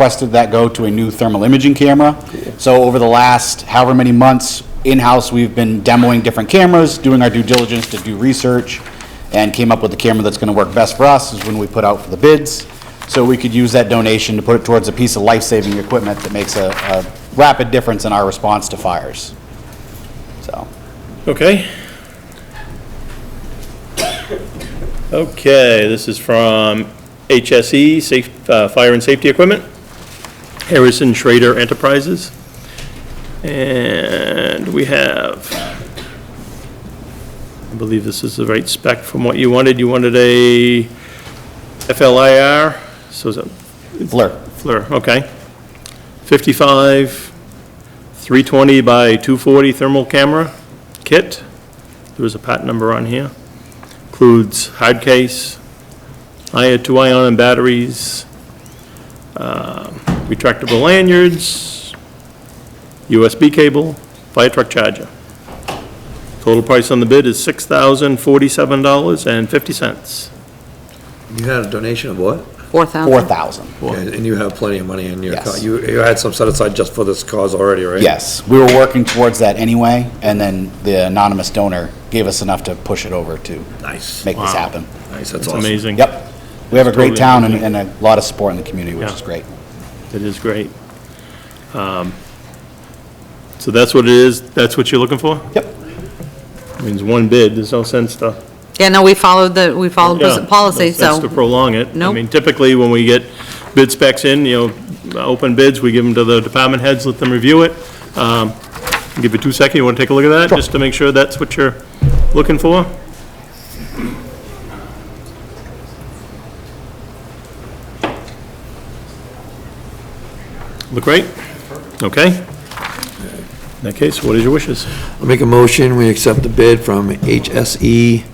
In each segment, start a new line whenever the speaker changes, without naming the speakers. requested that go to a new thermal imaging camera. So over the last however many months, in-house, we've been demoing different cameras, doing our due diligence to do research, and came up with the camera that's gonna work best for us is when we put out for the bids. So we could use that donation to put it towards a piece of life-saving equipment that makes a, a rapid difference in our response to fires. So,
Okay. Okay, this is from HSE, Safe, uh, Fire and Safety Equipment, Harrison Schrader Enterprises. And we have, I believe this is the right spec from what you wanted. You wanted a FLIR, so is that
Fleur,
Fleur, okay. 55, 320 by 240 thermal camera kit. There was a patent number on here. Includes hard case, I- two-ion and batteries, um, retractable lanyards, USB cable, fire truck charger. Total price on the bid is $6,047.50.
You had a donation of what?
4,000.
four thousand.
Okay, And you have plenty of money in your account.
Yes.
You, you had some set aside just for this cause already, right?
Yes, we were working towards that anyway, and then the anonymous donor gave us enough to push it over to
Nice.
make this happen.
Nice, that's
It's
awesome.
amazing.
Yep. We have a great
Totally
town and, and a lot of support in the community, which
Yeah.
is great.
It is great. Um, So that's what it is, that's what you're looking for?
Yep.
I mean, it's one bid, there's no sense to.
Yeah, no, we followed the, we followed
Yeah,
the policy,
No sense to
so,
prolong it. I
Nope.
mean, typically, when we get bid specs in, you know, open bids, we give them to the department heads, let them review it. Um, Give you two seconds, you want to take a look at that, just to make sure that's what you're looking for? Look great? Okay. In that case, what is your wishes?
I'll make a motion, we accept the bid from HSE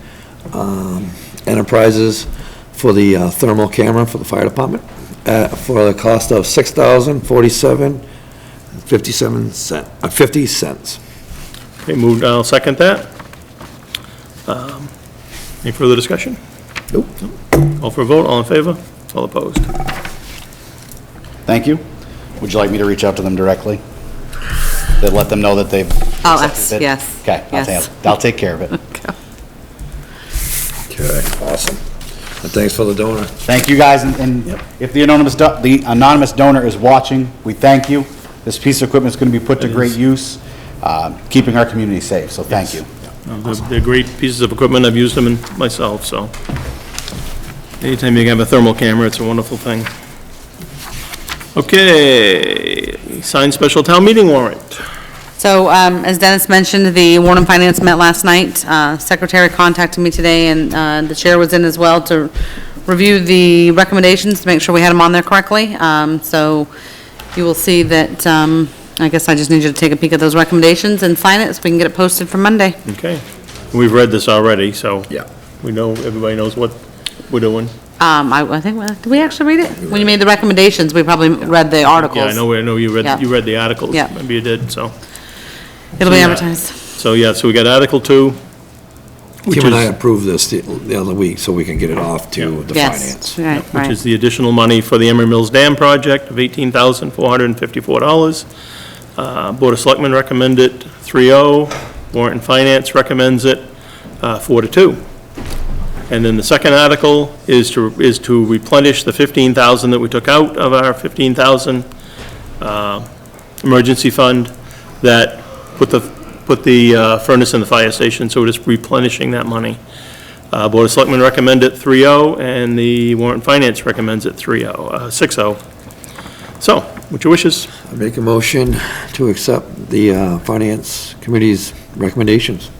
um, Enterprises for the uh, thermal camera for the fire department, uh, for the cost of six thousand forty-seven, fifty-seven cent, uh, fifty cents.
Okay, moved, I'll second that. Um, Any further discussion?
Nope.
All for a vote, all in favor, all opposed?
Thank you. Would you like me to reach out to them directly? To let them know that they've.
I'll
accepted
ask,
it?
oh,
Okay,
yes,
I'll
yes.
take, I'll take care of it.
Okay, awesome. And thanks for the donor.
Thank you, guys, and- and if the anonymous, do- the anonymous donor is watching, we thank you. This piece of equipment is going to be put to great use, uh, keeping our community safe, so thank you.
No, they're- They're great pieces of equipment, I've used them in myself, so. Anytime you can have a thermal camera, it's a wonderful thing. Okay, signed special town meeting warrant.
so, um, as Dennis mentioned, the Warren and Finance met last night. Uh, Secretary contacted me today, and, uh, the chair was in as well to review the recommendations, to make sure we had them on there correctly. Um, so you will see that, um, I guess I just need you to take a peek at those recommendations and sign it, so we can get it posted for Monday.
Okay, we've read this already, so.
Yeah.
We know, everybody knows what we're doing.
Um, I, I think, did we actually read it? When you made the recommendations, we probably read the articles.
Yeah, I know, I know you
Yeah.
read, you read the articles.
Yeah.
Maybe you did, so.
It'll be
Yeah.
advertised.
So, yeah, so we got Article 2, which
Kim and I
is,
approved this the the other week, so we can get it off to the finance.
Yes, right,
which
right.
is the additional money for the Emery Mills Dam project of $18,454. Uh, Board of Selectmen recommend it 3-0, Warrant and Finance recommends it uh, 4 to 2. And then the second article is to, is to replenish the 15,000 that we took out of our 15,000 uh, emergency fund that put the, put the uh, furnace in the fire station, so we're just replenishing that money. Uh, Board of Selectmen recommend it 3-0, and the warrant and finance recommends it 3-0, uh, 6-0. So, what's your wishes?
I make a motion to accept the uh, finance committee's recommendations.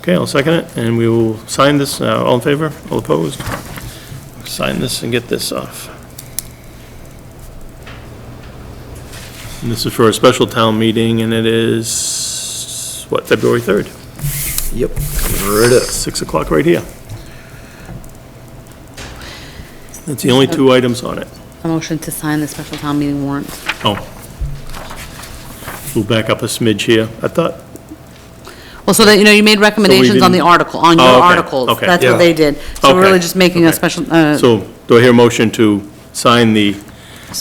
Okay, I'll second it, and we will sign this, Uh, all in favor, all opposed? Sign this and get this off. And this is for a special town meeting, and it is, what, February 3rd?
Yep. Right up.
6 o'clock right here. That's the only two items on it.
A motion to sign the special town meeting warrant.
Oh. We'll back up a smidge here. I thought,
Well, so that, you know, you made recommendations on the
didn't-
article, on your
Oh, okay,
articles.
okay.
That's
Yeah.
what they did. So we're
Okay,
really just making a
okay.
special, uh,
so do I hear a motion to sign the